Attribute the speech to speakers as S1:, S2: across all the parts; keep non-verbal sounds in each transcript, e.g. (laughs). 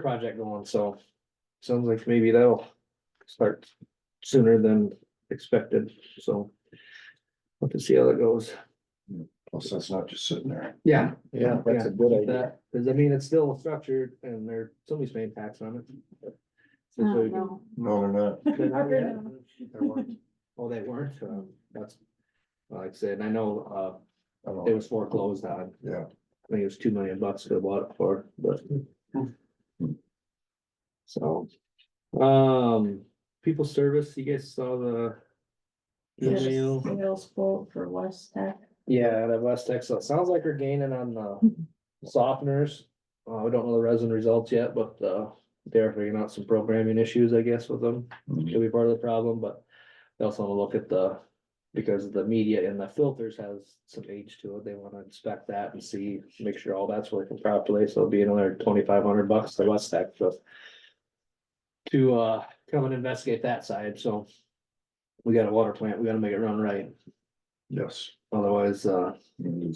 S1: project going, so sounds like maybe that'll start sooner than expected, so. We'll have to see how that goes.
S2: Plus, that's not just sitting there.
S1: Yeah.
S2: Yeah,
S1: that's a
S2: good
S1: That, cause I mean, it's still structured and there, somebody's paying tax on it.
S3: I
S1: Since
S3: don't
S1: we-
S3: know.
S2: No, they're not.
S1: They're not yet?
S2: They weren't.
S1: Oh, they weren't, um, that's, like I said, I know,
S2: I
S1: uh, it
S2: don't know.
S1: was foreclosed on,
S2: Yeah,
S1: I think it was two million bucks they bought it for, but. So, um, people service, you guys saw the.
S3: Yes.
S1: Email,
S3: Sales quote for West Tech.
S1: yeah, that West Tech, so it sounds like we're gaining on the softeners. Uh, we don't know the resin results yet, but, uh, they're figuring out some programming issues, I guess, with them could be part of the problem, but they also wanna look at the, because the media in the filters has some age to it, they wanna inspect that and see, make sure all that's working properly, so it'll be another twenty-five hundred bucks to West Tech to to, uh, come and investigate that side, so we got a water plant, we gotta make it run right,
S2: yes.
S1: otherwise, uh, we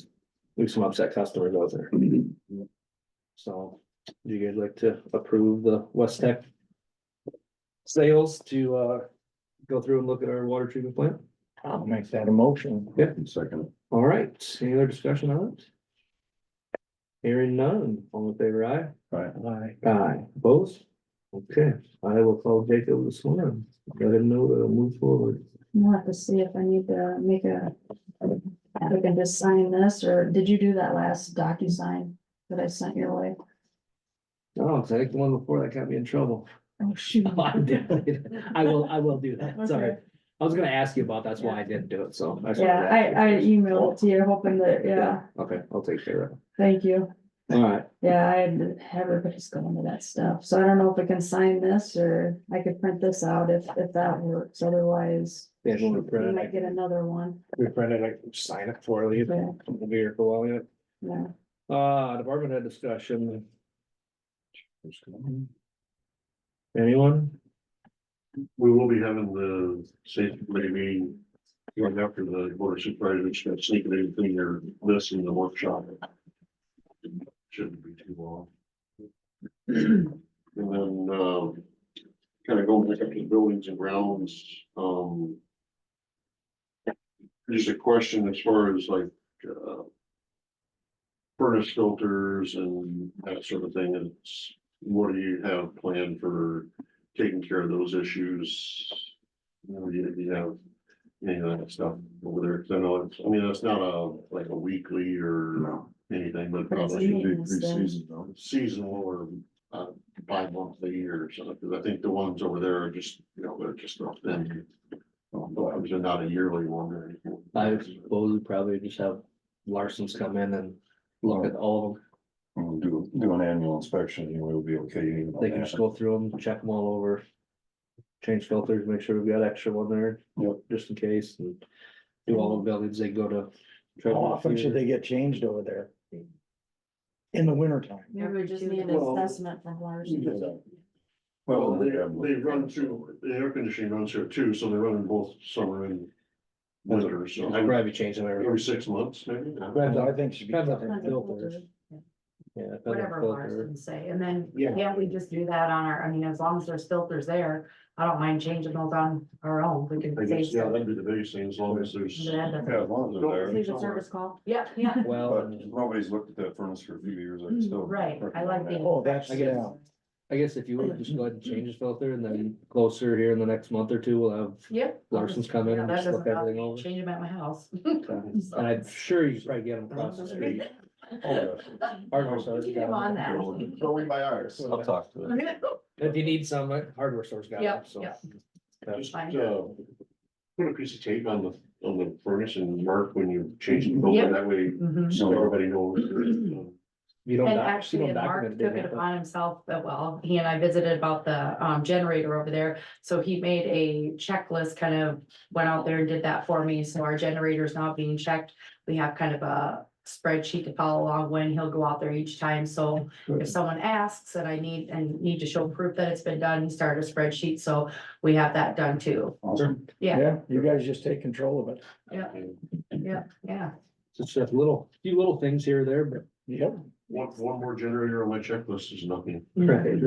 S1: have some upset customers out there, so do you guys like to approve the West Tech sales to, uh, go through and look at our water treatment plant?
S2: I'll make that a motion.
S1: Yeah.
S2: Second.
S1: All right, any other discussion on it? Hearing none, all in favor, aye?
S2: Right.
S1: Aye. Aye, opposed? Okay, I will call Jacob this morning, let him know to move forward.
S3: We'll have to see if I need to make a, if I can just sign this, or did you do that last DocuSign that I sent your way?
S1: Oh, it's like the one before that got me in trouble. (laughs)
S3: Oh, (laughs) shoot.
S1: I'm definitely- I will, I will do that, sorry.
S3: Okay.
S1: I was gonna ask you about, that's why I didn't do it, so. I should
S3: Yeah,
S1: have
S3: I,
S1: asked
S3: I
S1: you.
S3: emailed it to you hoping that, yeah,
S1: Okay, I'll take care of
S3: thank you.
S1: it. All right,
S3: Yeah, I, had- everybody's going to that stuff, so I don't know if I can sign this, or I could print this out if, if that works, otherwise.
S1: yeah,
S3: We
S1: we'll print
S3: might
S1: it,
S3: get another one,
S1: we print it, I sign it for you,
S3: yeah,
S1: it'll be here for a while,
S3: yeah.
S1: yeah. Uh, department head discussion, anyone?
S4: We will be having the safety committee meeting going after the board of supervisors, should sneak it in through your list in the workshop. Shouldn't be too long. And then, um, kind of going back up to the buildings and grounds, um. Just a question as far as like, uh. Furnace filters and that sort of thing, it's, what do you have planned for taking care of those issues. You know, you, you have any of that stuff over there, 'cause I know, it's- I mean, that's not a, like a weekly or
S2: No.
S4: anything, but
S3: But it's
S4: probably should be
S3: meaningless then.
S4: seasonal or, uh, bi-monthly or something, because I think the ones over there are just, you know, they're just not then. They're not a yearly one or anything.
S1: I suppose we probably just have Larson's come in and look at all of them.
S2: We'll do, do an annual inspection, and we'll be okay. even on
S1: They can just
S2: that.
S1: go through them, check them all over. Change filters, make sure we've got extra one there.
S2: Yep.
S1: Just in case and do all the buildings, they go to.
S5: How often should they get changed over there? In the winter time,
S3: Maybe we just need an
S4: Well-
S3: assessment from ours.
S4: Well, they, they run through, the air conditioning runs here too, so they run in both summer and winter, so
S1: I'd probably change them every.
S4: every six months, maybe. I don't know.
S5: I think should be.
S1: Depends on
S3: Depends
S1: the
S3: on
S1: filters. Yeah. depends on
S6: whatever
S1: filter.
S6: Larson say, and then,
S4: Yeah.
S6: yeah, we just do that on our, I mean, as long as there's filters there, I don't mind changing those on our own, we
S4: I
S6: can
S4: guess,
S6: save
S4: yeah,
S6: some.
S4: that'd be the biggest thing, as long as there's.
S6: Yeah, that's-
S2: Yeah, as long as they're there.
S3: Leave a service call.
S6: Yeah,
S3: 啊
S6: yeah,
S1: Well,
S2: But
S1: and
S2: nobody's looked at that furnace for a few years, I still.
S6: Mm, right, I like the.
S5: Oh, that's,
S1: I guess-
S5: yeah,
S1: I guess if you would just go ahead and change the filter and then closer here in the next month or two, we'll have
S6: Yep.
S1: Larson's come in
S6: Yeah,
S1: and
S6: that
S1: just look
S6: doesn't bother
S1: everything
S6: me.
S1: over.
S6: Change them at my house.
S1: And I'm sure you probably get them across the street.
S6: (laughs)
S2: Oh,
S1: Hardware store's
S6: Keep
S1: got
S6: them
S1: 'em.
S6: on that.
S2: Go in by ours. I'll talk to them.
S1: If you need some, uh, hardware store's got them,
S6: Yep,
S1: so.
S6: yep.
S1: that's-
S4: Just, uh, Put a piece of tape on the, on the furnace and mark when you change the
S6: Yep.
S4: filter, that way,
S6: Mhm.
S4: so
S3: (clears throat)
S4: everybody knows.
S1: You don't.
S6: And
S1: doc- you don't
S6: actually, and Mark
S1: document it,
S6: took
S1: do you?
S6: it upon himself, uh, well, he and I visited about the um generator over there. So he made a checklist, kind of went out there and did that for me. So our generator is now being checked. We have kind of a spreadsheet to follow along when he'll go out there each time. So if someone asks and I need and need to show proof that it's been done, he started a spreadsheet. So we have that done too.
S2: Awesome.
S6: Yeah,
S5: yeah, you guys just take control of it,
S6: yeah.
S1: It's just little, few little things here or there, but.
S5: yep.
S4: One, one more generator on my checklist is nothing.
S1: Right.